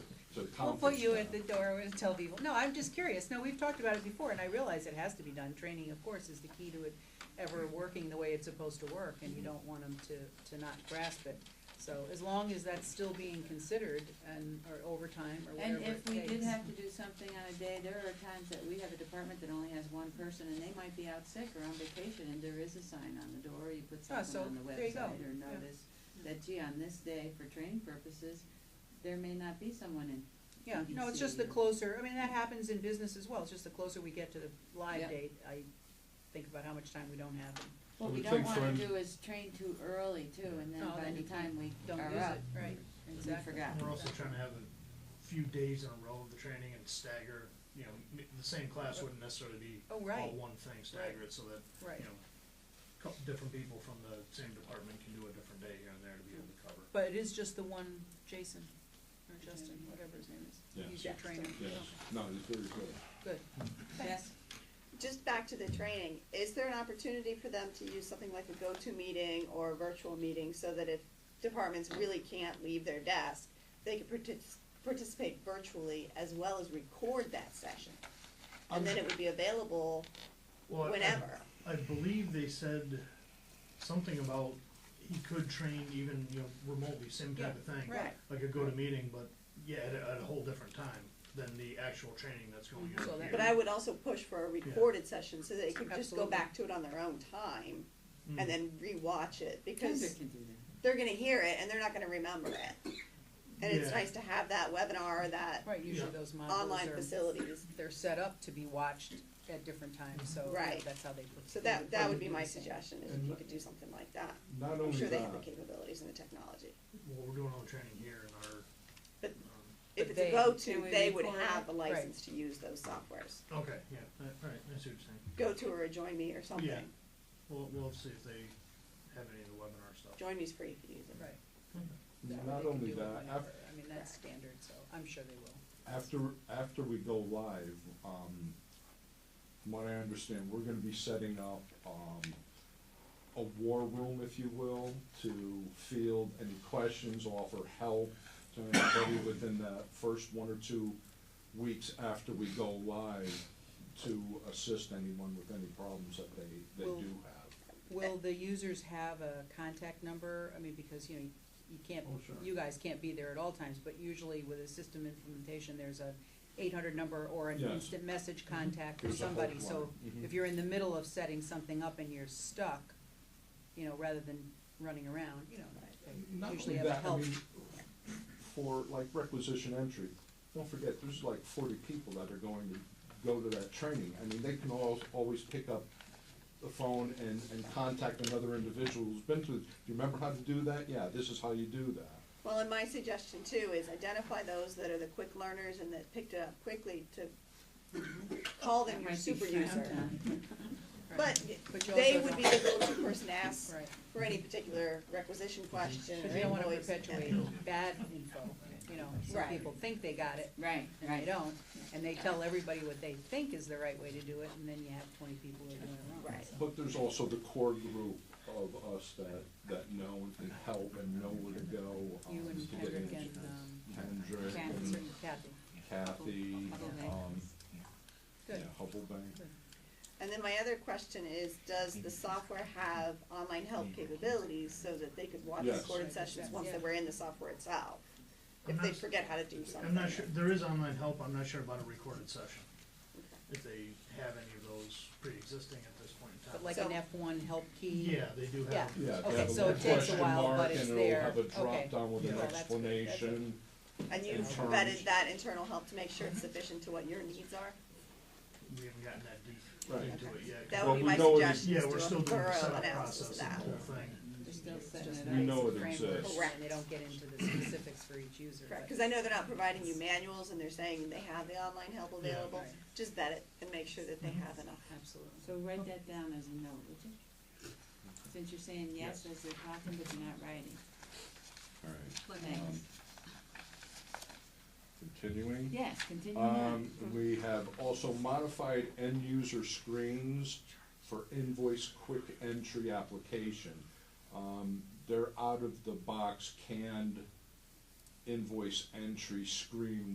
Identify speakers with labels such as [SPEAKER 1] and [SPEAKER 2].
[SPEAKER 1] We'll
[SPEAKER 2] town.
[SPEAKER 1] put
[SPEAKER 2] fixed
[SPEAKER 1] you
[SPEAKER 2] that.
[SPEAKER 1] at the door and tell people, no, I'm just curious, no, we've talked about it before, and I realize it has to be done, training, of course, is the key to it ever working the way it's supposed to work, and you don't want them to, to not grasp it. So as long as that's still being considered and, or overtime or whatever
[SPEAKER 3] And
[SPEAKER 1] it
[SPEAKER 3] if we did
[SPEAKER 1] takes.
[SPEAKER 3] have to do something on a day, there are times that we have a department that only has one person and they might be out sick or on vacation and there is a sign on the door, you put
[SPEAKER 1] Ah,
[SPEAKER 3] something on the
[SPEAKER 1] so, there you go.
[SPEAKER 3] website or
[SPEAKER 1] Yeah.
[SPEAKER 3] notice that gee, on this day for training purposes, there may not be someone in.
[SPEAKER 1] Yeah,
[SPEAKER 3] you can
[SPEAKER 1] no, it's
[SPEAKER 3] see
[SPEAKER 1] just the
[SPEAKER 3] it.
[SPEAKER 1] closer, I mean, that happens in business as well, it's just the closer we get to the live
[SPEAKER 3] Yeah.
[SPEAKER 1] date, I think about how much time we don't have and
[SPEAKER 3] What
[SPEAKER 4] I
[SPEAKER 3] we
[SPEAKER 4] would
[SPEAKER 3] don't
[SPEAKER 4] think
[SPEAKER 3] wanna
[SPEAKER 4] friend-
[SPEAKER 3] do is train too early too and then
[SPEAKER 1] No,
[SPEAKER 3] by
[SPEAKER 1] then
[SPEAKER 3] the
[SPEAKER 1] you
[SPEAKER 3] time we
[SPEAKER 1] don't
[SPEAKER 3] are
[SPEAKER 1] use
[SPEAKER 3] up,
[SPEAKER 1] it, right,
[SPEAKER 3] we
[SPEAKER 1] exactly.
[SPEAKER 3] forgot.
[SPEAKER 5] We're also trying to have a few days in a row of the training and stagger, you know, m- the same class wouldn't necessarily be
[SPEAKER 1] Oh,
[SPEAKER 5] all
[SPEAKER 1] right.
[SPEAKER 5] one thing, stagger it so that,
[SPEAKER 1] Right.
[SPEAKER 5] you know, couple, different people from the same department can do a different day here and there to be able to cover.
[SPEAKER 1] But it is just the one Jason, or Justin, whatever his name is,
[SPEAKER 4] Yeah.
[SPEAKER 1] he's your trainer.
[SPEAKER 4] Yes, no, it's very good.
[SPEAKER 1] Good,
[SPEAKER 3] Yes,
[SPEAKER 6] Just back to the training, is there an opportunity for them to use something like a go-to meeting or a virtual meeting so that if departments really can't leave their desk, they could partic- participate virtually as well as record that session? And then it would be available
[SPEAKER 5] Well, I- I-
[SPEAKER 6] whenever.
[SPEAKER 5] I believe they said something about he could train even, you know, remotely, same type of thing.
[SPEAKER 6] right.
[SPEAKER 5] Like a go-to-meeting, but yeah, at a, at a whole different time than the actual training that's going
[SPEAKER 1] So
[SPEAKER 5] on
[SPEAKER 1] that-
[SPEAKER 5] here.
[SPEAKER 6] But I would also push for a recorded session so they could just go
[SPEAKER 1] Absolutely.
[SPEAKER 6] back to it on their own time
[SPEAKER 5] Mm.
[SPEAKER 6] and then rewatch it because.
[SPEAKER 3] Kendra can do that.
[SPEAKER 6] they're gonna hear it and they're not gonna remember it. And it's
[SPEAKER 5] Yeah.
[SPEAKER 6] nice to have that webinar, that
[SPEAKER 1] right, usually
[SPEAKER 5] Yeah.
[SPEAKER 1] those
[SPEAKER 6] online
[SPEAKER 1] modules are,
[SPEAKER 6] facilities,
[SPEAKER 1] they're set up to be watched at different times, so you know,
[SPEAKER 6] Right.
[SPEAKER 1] that's how they.
[SPEAKER 6] so that, that would be my
[SPEAKER 1] Yeah.
[SPEAKER 6] suggestion, is if you could do something like that.
[SPEAKER 4] Not
[SPEAKER 6] I'm
[SPEAKER 4] only
[SPEAKER 6] sure they have the
[SPEAKER 4] that,
[SPEAKER 6] capabilities and the technology,
[SPEAKER 5] What we're doing on training here in our,
[SPEAKER 6] but
[SPEAKER 5] um,
[SPEAKER 1] But
[SPEAKER 6] if it's
[SPEAKER 1] they-
[SPEAKER 6] a
[SPEAKER 3] Can
[SPEAKER 6] go-to,
[SPEAKER 3] we
[SPEAKER 6] they would
[SPEAKER 3] record it?
[SPEAKER 6] have a license to use those softwares.
[SPEAKER 5] okay, yeah, all right, I see what you're saying.
[SPEAKER 6] Go-to or a Join Me or something,
[SPEAKER 5] We'll, we'll see if they have any of the webinar stuff.
[SPEAKER 6] Join Me's free, if you use it.
[SPEAKER 1] Right, that way
[SPEAKER 4] not
[SPEAKER 1] they can
[SPEAKER 4] only
[SPEAKER 1] do it
[SPEAKER 4] that,
[SPEAKER 1] whenever,
[SPEAKER 4] after,
[SPEAKER 1] I mean, that's standard, so I'm sure they will.
[SPEAKER 4] after, after we go live, um, from what I understand, we're gonna be setting up, um, a war room, if you will, to field any questions, offer help to anybody within the first one or two weeks after we go live to assist anyone with any problems that they, they
[SPEAKER 1] Well-
[SPEAKER 4] do have.
[SPEAKER 1] Will the users have a contact number? I mean, because, you know, you can't,
[SPEAKER 4] Oh, sure.
[SPEAKER 1] you guys can't be there at all times, but usually with a system implementation, there's a eight hundred number or an
[SPEAKER 4] Yes.
[SPEAKER 1] instant message contact or
[SPEAKER 4] There's a
[SPEAKER 1] somebody,
[SPEAKER 4] helpline.
[SPEAKER 1] so
[SPEAKER 4] Mhm.
[SPEAKER 1] if you're in the middle of setting something up and you're stuck, you know, rather than running around, you know,
[SPEAKER 4] Not
[SPEAKER 1] they
[SPEAKER 4] only
[SPEAKER 1] usually have a
[SPEAKER 4] that, I
[SPEAKER 1] help.
[SPEAKER 4] mean, For like requisition entry, don't forget, there's like forty people that are going to go to that training. I mean, they can al- always pick up the phone and, and contact another individual who's been through. Do you remember how to do that? Yeah, this is how you do that.
[SPEAKER 6] Well, and my suggestion too is identify those that are the quick learners and that picked it up quickly to call them
[SPEAKER 3] That
[SPEAKER 6] your
[SPEAKER 3] might be
[SPEAKER 6] super
[SPEAKER 3] frowned
[SPEAKER 6] user.
[SPEAKER 3] on.
[SPEAKER 6] But
[SPEAKER 1] But you
[SPEAKER 6] they
[SPEAKER 1] also
[SPEAKER 6] would be
[SPEAKER 1] don't-
[SPEAKER 6] the go-to person to ask
[SPEAKER 1] Right,
[SPEAKER 6] for any particular requisition question
[SPEAKER 1] because
[SPEAKER 6] or
[SPEAKER 1] you don't wanna
[SPEAKER 6] invoice.
[SPEAKER 1] perpetuate bad info, you know, some
[SPEAKER 6] Right.
[SPEAKER 1] people think they got it,
[SPEAKER 3] Right,
[SPEAKER 1] and they
[SPEAKER 3] right.
[SPEAKER 1] don't, and they tell everybody what they think is the right way to do it, and then you have twenty people who are doing it wrong.
[SPEAKER 6] Right.
[SPEAKER 4] But there's also the core group of us that, that know and can help and know where to go. um,
[SPEAKER 1] You and
[SPEAKER 4] to get
[SPEAKER 1] Kendrick
[SPEAKER 4] in-
[SPEAKER 1] and, um,
[SPEAKER 4] Kendrick
[SPEAKER 1] Kathy,
[SPEAKER 4] and
[SPEAKER 1] Kathy,
[SPEAKER 4] Kathy, um, yeah,
[SPEAKER 1] good,
[SPEAKER 4] Hubble Bank.
[SPEAKER 6] And then my other question is, does
[SPEAKER 4] Mm-hmm.
[SPEAKER 6] the software have online help capabilities so that they could watch
[SPEAKER 4] Yes.
[SPEAKER 6] recorded sessions once they were in the software itself?
[SPEAKER 5] I'm
[SPEAKER 6] If they
[SPEAKER 5] not-
[SPEAKER 6] forget how to do something.
[SPEAKER 5] I'm not sure, there is online help, I'm not sure about a recorded session, if they have any of those pre-existing at this point in time.
[SPEAKER 1] but like
[SPEAKER 6] So-
[SPEAKER 1] an F one help key.
[SPEAKER 5] Yeah, they do
[SPEAKER 1] Yeah.
[SPEAKER 5] have,
[SPEAKER 4] Yeah,
[SPEAKER 1] Okay,
[SPEAKER 4] they have a
[SPEAKER 1] so it
[SPEAKER 4] little
[SPEAKER 1] takes a
[SPEAKER 4] question
[SPEAKER 1] while, but
[SPEAKER 4] mark
[SPEAKER 1] it's
[SPEAKER 4] and
[SPEAKER 1] there.
[SPEAKER 4] it'll have a
[SPEAKER 1] Okay.
[SPEAKER 4] drop down with
[SPEAKER 1] Yeah.
[SPEAKER 4] an
[SPEAKER 1] Well, that's good. That's good.
[SPEAKER 4] explanation.
[SPEAKER 6] And you
[SPEAKER 4] Yeah.
[SPEAKER 6] vetted that internal help to make sure
[SPEAKER 4] Mm-hmm.
[SPEAKER 6] it's sufficient to what your needs are?
[SPEAKER 5] we haven't gotten that deep
[SPEAKER 4] Right.
[SPEAKER 5] into it yet. 'cause
[SPEAKER 6] That
[SPEAKER 4] Well,
[SPEAKER 6] would be
[SPEAKER 4] we
[SPEAKER 6] my
[SPEAKER 4] know it is-
[SPEAKER 6] suggestion,
[SPEAKER 5] Yeah,
[SPEAKER 6] is
[SPEAKER 5] we're
[SPEAKER 6] do
[SPEAKER 5] still
[SPEAKER 6] a
[SPEAKER 5] doing the
[SPEAKER 6] thorough
[SPEAKER 5] setup process
[SPEAKER 6] analysis of
[SPEAKER 5] of the
[SPEAKER 6] that.
[SPEAKER 5] whole thing.
[SPEAKER 3] They're still setting it
[SPEAKER 1] Just
[SPEAKER 3] up.
[SPEAKER 4] We know
[SPEAKER 1] the
[SPEAKER 4] it
[SPEAKER 1] framework,
[SPEAKER 4] exists.
[SPEAKER 1] and they don't get into the specifics for each user,
[SPEAKER 6] Correct,
[SPEAKER 1] but-
[SPEAKER 6] because I know they're not providing you manuals and they're saying they have the online help available.
[SPEAKER 1] Right.
[SPEAKER 6] Just vet it and make sure that they
[SPEAKER 5] Mm-hmm.
[SPEAKER 6] have enough.
[SPEAKER 1] absolutely.
[SPEAKER 3] So write that down as a note, would you? Since you're saying yes as they're talking, but you're not writing.
[SPEAKER 4] All right,
[SPEAKER 3] Thanks.
[SPEAKER 4] continuing.
[SPEAKER 3] Yes, continue on.
[SPEAKER 4] Um, we have also modified end-user screens for invoice quick entry application. Um, they're out-of-the-box canned invoice entry screen